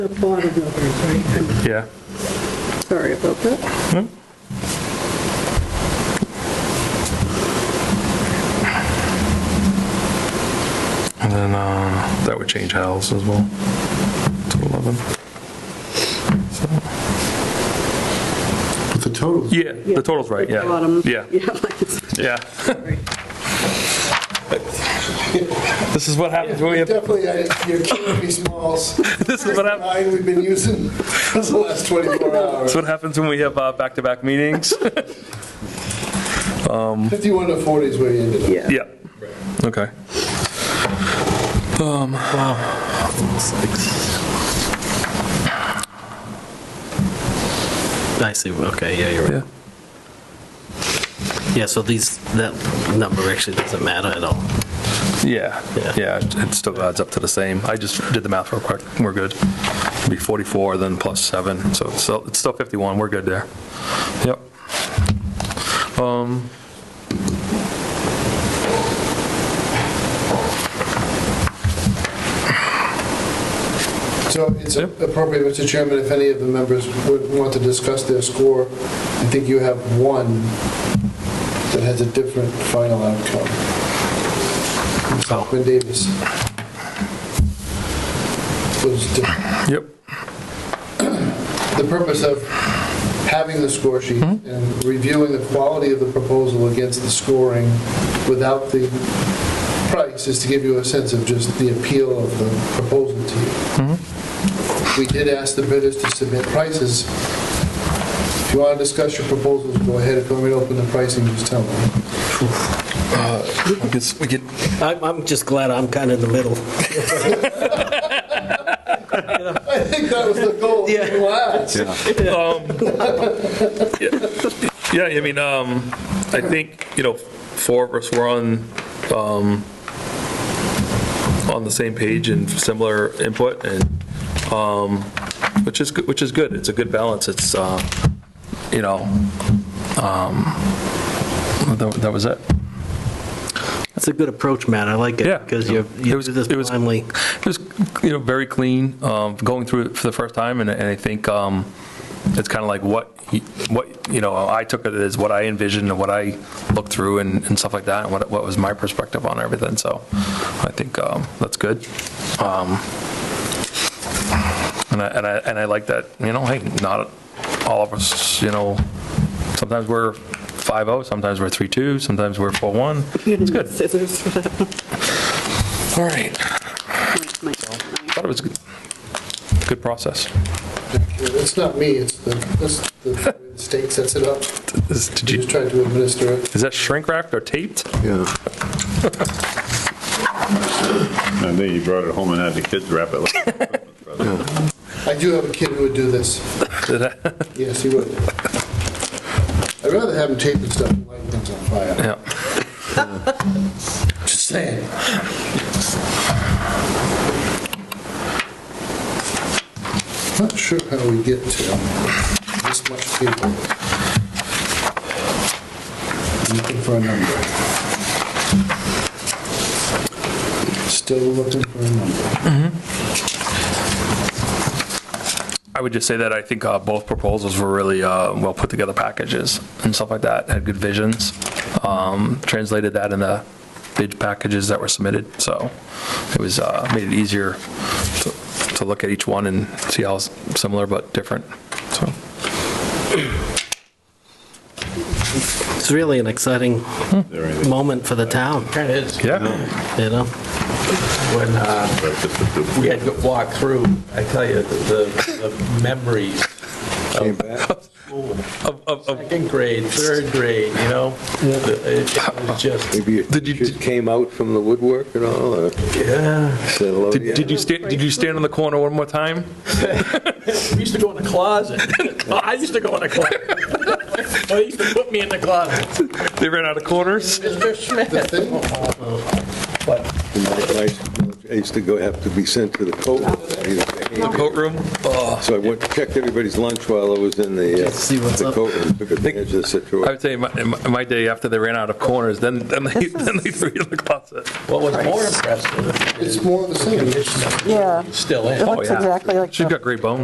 The bottom of it, right? Yeah. I'm sorry about that. And then uh, that would change Hal's as well to 11. So, But the total, yeah, the total's right. The Yeah. Bottom. Yeah. Yeah. Yeah. this is what happens when we have. definitely, I- you're killing me, Smalls. This is what happens. Nine we've been using for the last 24 hours. That's what happens when we have uh, back-to-back meetings. 51 to 40 is where you ended up. Yeah. yeah. Okay. Um. I see, okay, yeah, you're Yeah. right. Yeah, so these, that number actually doesn't matter at all. Yeah, Yeah. yeah, it still adds up to the same. I just did the math real quick, we're good. It'd Be 44, then plus 7, so it's still, it's still 51, we're good there. Yep. Um, So it's Yep. appropriate, Mr. Chairman, if any of the members would want to discuss their score, I think you have one that has a different final outcome. Quinn Davis. Was different. Yep, the purpose of having the score sheet and reviewing the quality of the proposal against the scoring without the price is to give you a sense of just the appeal of the proposal to you. We did ask the bidders to submit prices. If you want to discuss your proposals, go ahead. If you want me to open the pricing, just tell me. I guess we get, I'm, I'm just glad I'm kind of in the middle. I think that was the goal. Yeah. You asked. um, yeah, I mean, um, I think, you know, four of us were on, um, on the same page and similar input, and, um, which is, good. which is good, it's a good balance, it's, uh, you know, um, that that was it. It's a good approach, Matt, I like it. Yeah. Because you're, It you was- do this it was- timely. It was, you know, very clean, um, going through it for the first time, and and I think um, it's kind of like what, y- what, you know, I took it as what I envisioned and what I looked through and and stuff like that, and what what was my perspective on everything, so I think um, that's good. Um, And I, and I, and I like that, you know, hey, not all of us, you know, sometimes we're 5-0, sometimes we're 3-2, sometimes we're 4-1. It's good. Scissors for that one. All right. Might- Thought it was a good- good process. It's not me, it's the, it's the state sets it up. Is, did You just you, try to administer it. is that shrink wrapped or taped? Yeah. I think you brought it home and had the kids wrap it like. I do have a kid who would do this. Did I- Yes, he would. I'd rather have him tape and stuff than light things on fire. Yeah. Just saying. Not sure how we get to this much people. Looking for a number. Still looking for a number. I would just say that I think uh, both proposals were really uh, well put together packages and stuff like that, had good visions. Um, Translated that in the bid packages that were submitted, so it was, uh, made it easier to to look at each one and see how s- similar but different, so. It's really an exciting Hmm. moment for the town, Yeah, you know? When uh, we had to walk through, I tell you, the the memories Came back. Of- of- of- second grade, third grade, you know? It it was just, Maybe your Did you- teachers came out from the woodwork and all, or yeah. said hello to did did you? you stand, did you stand in the corner one more time? We used to go in the closet. I used to go in the closet. They used to put me in the closet. They ran out of corners? Mr. The Smith. thing, In my life, I used to go, have to be sent to the coat. The coat room? Oh, So I went, checked everybody's lunch while I was in the, uh, Just see what's the up. coat room, took advantage of the I situation. would say in my, in my- my day after they ran out of corners, then, then they, then they threw you in the closet. What was more impressive It's more of the same. is Yeah, still in. that's exactly like She's the got great bones.